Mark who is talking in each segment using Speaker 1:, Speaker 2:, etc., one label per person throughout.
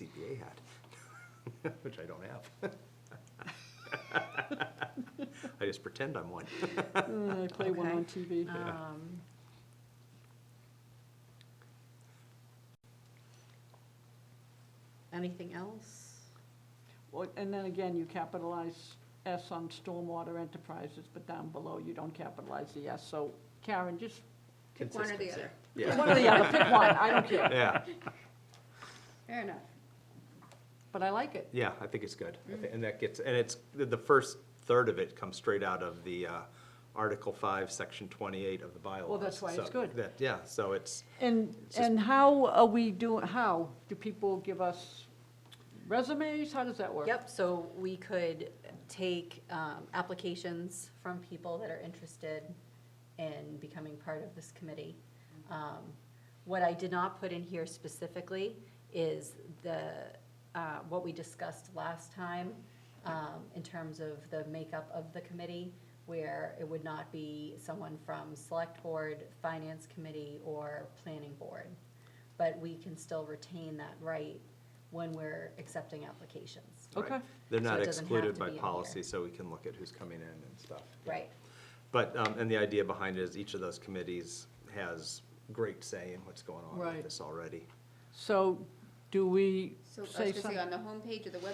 Speaker 1: CPA hat, which I don't have. I just pretend I'm one.
Speaker 2: Uh, I play one
Speaker 3: Okay.
Speaker 2: on
Speaker 4: Uh,
Speaker 2: TV.
Speaker 3: Um, Anything else?
Speaker 2: Well, And then again, you capitalize S on Stormwater Enterprises, but down below, you don't capitalize the S. So Karen, just
Speaker 3: Pick one or the
Speaker 1: Consistency.
Speaker 3: other.
Speaker 1: Yeah,
Speaker 2: one or the other, pick one, I don't care,
Speaker 1: yeah,
Speaker 3: Fair enough.
Speaker 2: but I like it.
Speaker 1: yeah, I think it's good. I thi- And that gets, and it's, the- the first third of it comes straight out of the uh, Article 5, Section 28 of the bylaws.
Speaker 2: that's why it's
Speaker 1: So
Speaker 2: good.
Speaker 1: that- Yeah, so it's,
Speaker 2: And,
Speaker 1: It's just-
Speaker 2: and how are we doing, how? Do people give us resumes? How does that work?
Speaker 3: Yep, so we could take um, applications from people that are interested in becoming part of this committee. Um, What I did not put in here specifically is the, uh, what we discussed last time um, in terms of the makeup of the committee, where it would not be someone from Select Board, Finance Committee, or Planning Board. But we can still retain that right when we're accepting applications.
Speaker 1: right.
Speaker 2: Okay.
Speaker 1: They're
Speaker 3: So
Speaker 1: not
Speaker 3: it doesn't have
Speaker 1: excluded
Speaker 3: to
Speaker 1: by
Speaker 3: be in
Speaker 1: policy,
Speaker 3: here.
Speaker 1: so we can look at who's coming in and stuff. Yeah.
Speaker 3: Right,
Speaker 1: But, um, and the idea behind it is each of those committees has great say in what's going on with
Speaker 2: Right.
Speaker 1: this already.
Speaker 2: So do we
Speaker 4: So I
Speaker 2: say
Speaker 4: was gonna say, uh,
Speaker 2: something?
Speaker 4: on the homepage of the
Speaker 2: Yeah,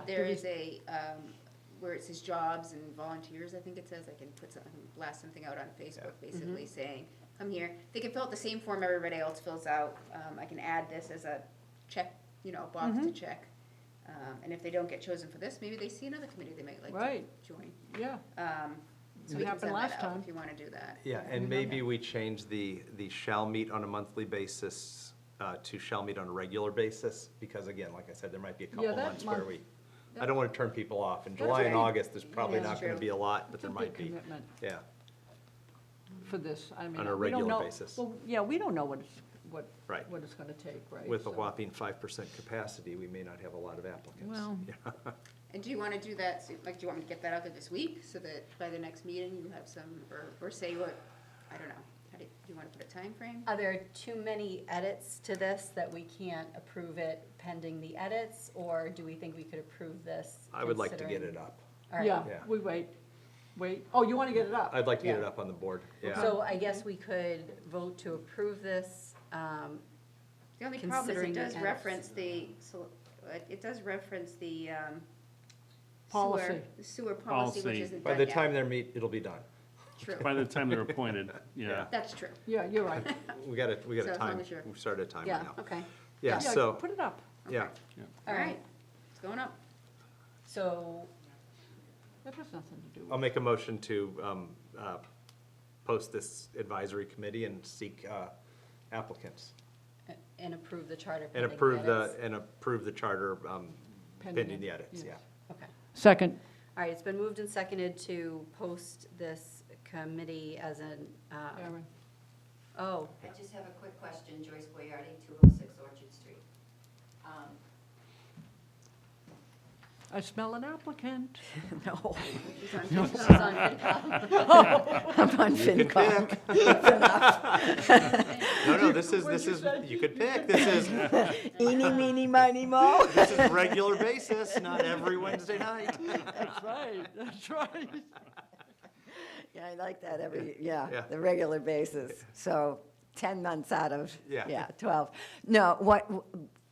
Speaker 4: website, there
Speaker 2: did we-
Speaker 4: is a, um, where it says jobs and volunteers, I think it says, I can put something, blast um, something out on Facebook,
Speaker 2: Mm-hmm.
Speaker 4: basically saying, come here, they can fill out the same form everybody else fills out, um, I can add this as a check, you know, a
Speaker 2: Mm-hmm.
Speaker 4: box to check. Um, and if they don't get chosen for this, maybe they see another committee they might like to
Speaker 2: Right.
Speaker 4: join.
Speaker 2: Yeah,
Speaker 4: Um, so
Speaker 2: It
Speaker 4: we can
Speaker 2: happened
Speaker 4: send
Speaker 2: last
Speaker 4: that out
Speaker 2: time.
Speaker 4: if you wanna do that.
Speaker 1: Yeah, and maybe we change the, the shall meet on a monthly basis uh, to shall meet on a regular basis, because again, like I said, there might be a couple
Speaker 2: that
Speaker 1: months where
Speaker 2: month-
Speaker 1: we, I don't want to turn people off. In
Speaker 4: That's
Speaker 1: July and
Speaker 4: okay.
Speaker 1: August, there's probably
Speaker 4: That's
Speaker 1: not going to be
Speaker 4: true.
Speaker 1: a lot, but
Speaker 2: it's a
Speaker 1: there
Speaker 2: big
Speaker 1: might be.
Speaker 2: commitment
Speaker 1: Yeah,
Speaker 2: for this, I mean.
Speaker 1: On a
Speaker 2: we don't
Speaker 1: regular
Speaker 2: know-
Speaker 1: basis.
Speaker 2: Well, yeah, we don't know what it's, what,
Speaker 1: Right.
Speaker 2: what it's gonna take, right?
Speaker 1: with a
Speaker 2: So-
Speaker 1: whopping five percent capacity, we may not have a lot of applicants.
Speaker 2: Well-
Speaker 1: Yeah.
Speaker 4: And do you wanna do that, so- like, do you want me to get that out there this week, so that by the next meeting, you have some, or, or say what, I don't know, how do, you- do you wanna put a time frame?
Speaker 3: Are there too many edits to this that we can't approve it pending the edits? Or do we think we could approve this?
Speaker 1: I would like to get it
Speaker 3: considering-
Speaker 1: up.
Speaker 3: All right.
Speaker 2: Yeah,
Speaker 1: Yeah.
Speaker 2: we wait, wait. Oh, you wanna get it up?
Speaker 1: I'd like to get it
Speaker 3: Yeah.
Speaker 1: up on the board, yeah.
Speaker 3: So I guess we could vote to approve this. um,
Speaker 4: The only problem is
Speaker 3: Considering
Speaker 4: it
Speaker 3: the
Speaker 4: does
Speaker 3: edits.
Speaker 4: reference the, so, uh, it does reference the, um, sewer,
Speaker 2: Policy.
Speaker 4: the sewer policy, which
Speaker 5: Policy.
Speaker 4: isn't
Speaker 1: By
Speaker 4: done
Speaker 1: the
Speaker 4: yet.
Speaker 1: time they're meet, it'll be done.
Speaker 4: True,
Speaker 5: By the time they're appointed,
Speaker 1: Yeah.
Speaker 5: yeah.
Speaker 4: that's true.
Speaker 2: Yeah, you're right.
Speaker 1: We got a, we got
Speaker 4: So
Speaker 1: a
Speaker 4: as long
Speaker 1: time,
Speaker 4: as you're-
Speaker 1: we started a timer
Speaker 3: Yeah,
Speaker 1: now.
Speaker 3: okay.
Speaker 1: Yeah, so,
Speaker 2: Put it up.
Speaker 1: yeah,
Speaker 4: All right, it's going up.
Speaker 3: So,
Speaker 2: That has nothing to do with
Speaker 1: I'll
Speaker 2: it.
Speaker 1: make a motion to um, uh, post this advisory committee and seek uh, applicants.
Speaker 3: a- and approve the charter
Speaker 1: And
Speaker 3: pending the
Speaker 1: approve the,
Speaker 3: edits.
Speaker 1: and approve the charter um,
Speaker 2: Pending
Speaker 1: pending the
Speaker 2: it,
Speaker 1: edits, yeah.
Speaker 2: yes.
Speaker 3: Okay.
Speaker 2: Second.
Speaker 3: All right, it's been moved and seconded to post this committee as an, uh,
Speaker 2: Aaron.
Speaker 3: oh,
Speaker 6: I just have a quick question, Joyce Boyardi, 206 Orchard Street. Um,
Speaker 2: I smell an applicant.
Speaker 7: No,
Speaker 4: It's on
Speaker 3: this
Speaker 4: Facebook.
Speaker 3: is on FinCom.
Speaker 7: I'm on FinCom.
Speaker 1: No, no, this is,
Speaker 2: What'd
Speaker 1: this
Speaker 2: you
Speaker 1: is,
Speaker 2: say?
Speaker 1: you could pick, this is,
Speaker 7: Eeny, meeny, miny, mo.
Speaker 1: this is regular basis, not every Wednesday night.
Speaker 2: That's right, that's right.
Speaker 7: Yeah, I like that every, yeah,
Speaker 1: Yeah.
Speaker 7: the regular basis. So 10 months out of,
Speaker 1: Yeah.
Speaker 7: yeah, 12. No, what,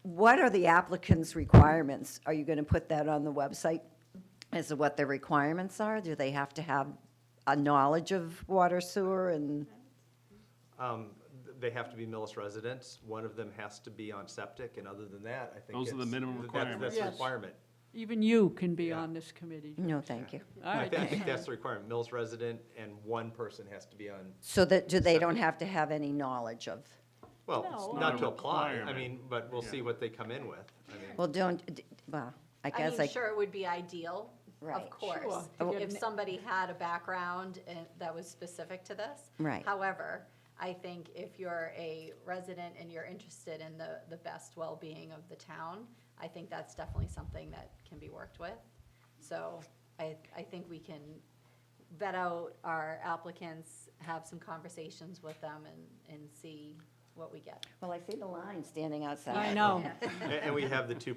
Speaker 7: what are the applicant's requirements? Are you going to put that on the website as to what their requirements are? Do they have to have a knowledge of water, sewer, and,
Speaker 1: Um, They have to be Millis residents, one of them has to be on septic, and other than that, I think
Speaker 5: Those are the
Speaker 1: it's-
Speaker 5: minimum
Speaker 1: that- that's- That's the
Speaker 2: requirements.
Speaker 1: requirement.
Speaker 2: Even you can be
Speaker 1: Yeah.
Speaker 2: on this committee.
Speaker 7: no, thank you.
Speaker 2: All
Speaker 1: I
Speaker 2: right,
Speaker 1: thi- I
Speaker 2: that's
Speaker 1: think
Speaker 2: fine.
Speaker 1: that's the requirement, Millis resident and one person has to be on,
Speaker 7: So that, do they don't have to have any knowledge of?
Speaker 1: well,
Speaker 2: No.
Speaker 1: it's
Speaker 2: Not
Speaker 1: not
Speaker 5: a
Speaker 1: to apply, I
Speaker 5: requirement.
Speaker 1: mean, but we'll see
Speaker 5: Yeah.
Speaker 1: what they come in with. I mean,
Speaker 7: Well, don't, d- well, I
Speaker 3: I
Speaker 7: guess
Speaker 3: mean,
Speaker 7: I,
Speaker 3: sure, it would be ideal, of
Speaker 7: Right.
Speaker 3: course,
Speaker 2: Sure, to get
Speaker 3: if
Speaker 2: an-
Speaker 3: somebody had a background and- that was specific to this.
Speaker 7: Right.
Speaker 3: However, I think if you're a resident and you're interested in the, the best well-being of the town, I think that's definitely something that can be worked with. So I, I think we can vet out our applicants, have some conversations with them and, and see
Speaker 8: what we get.
Speaker 3: Well, I see the line standing outside.
Speaker 7: I know.
Speaker 1: And and we have the two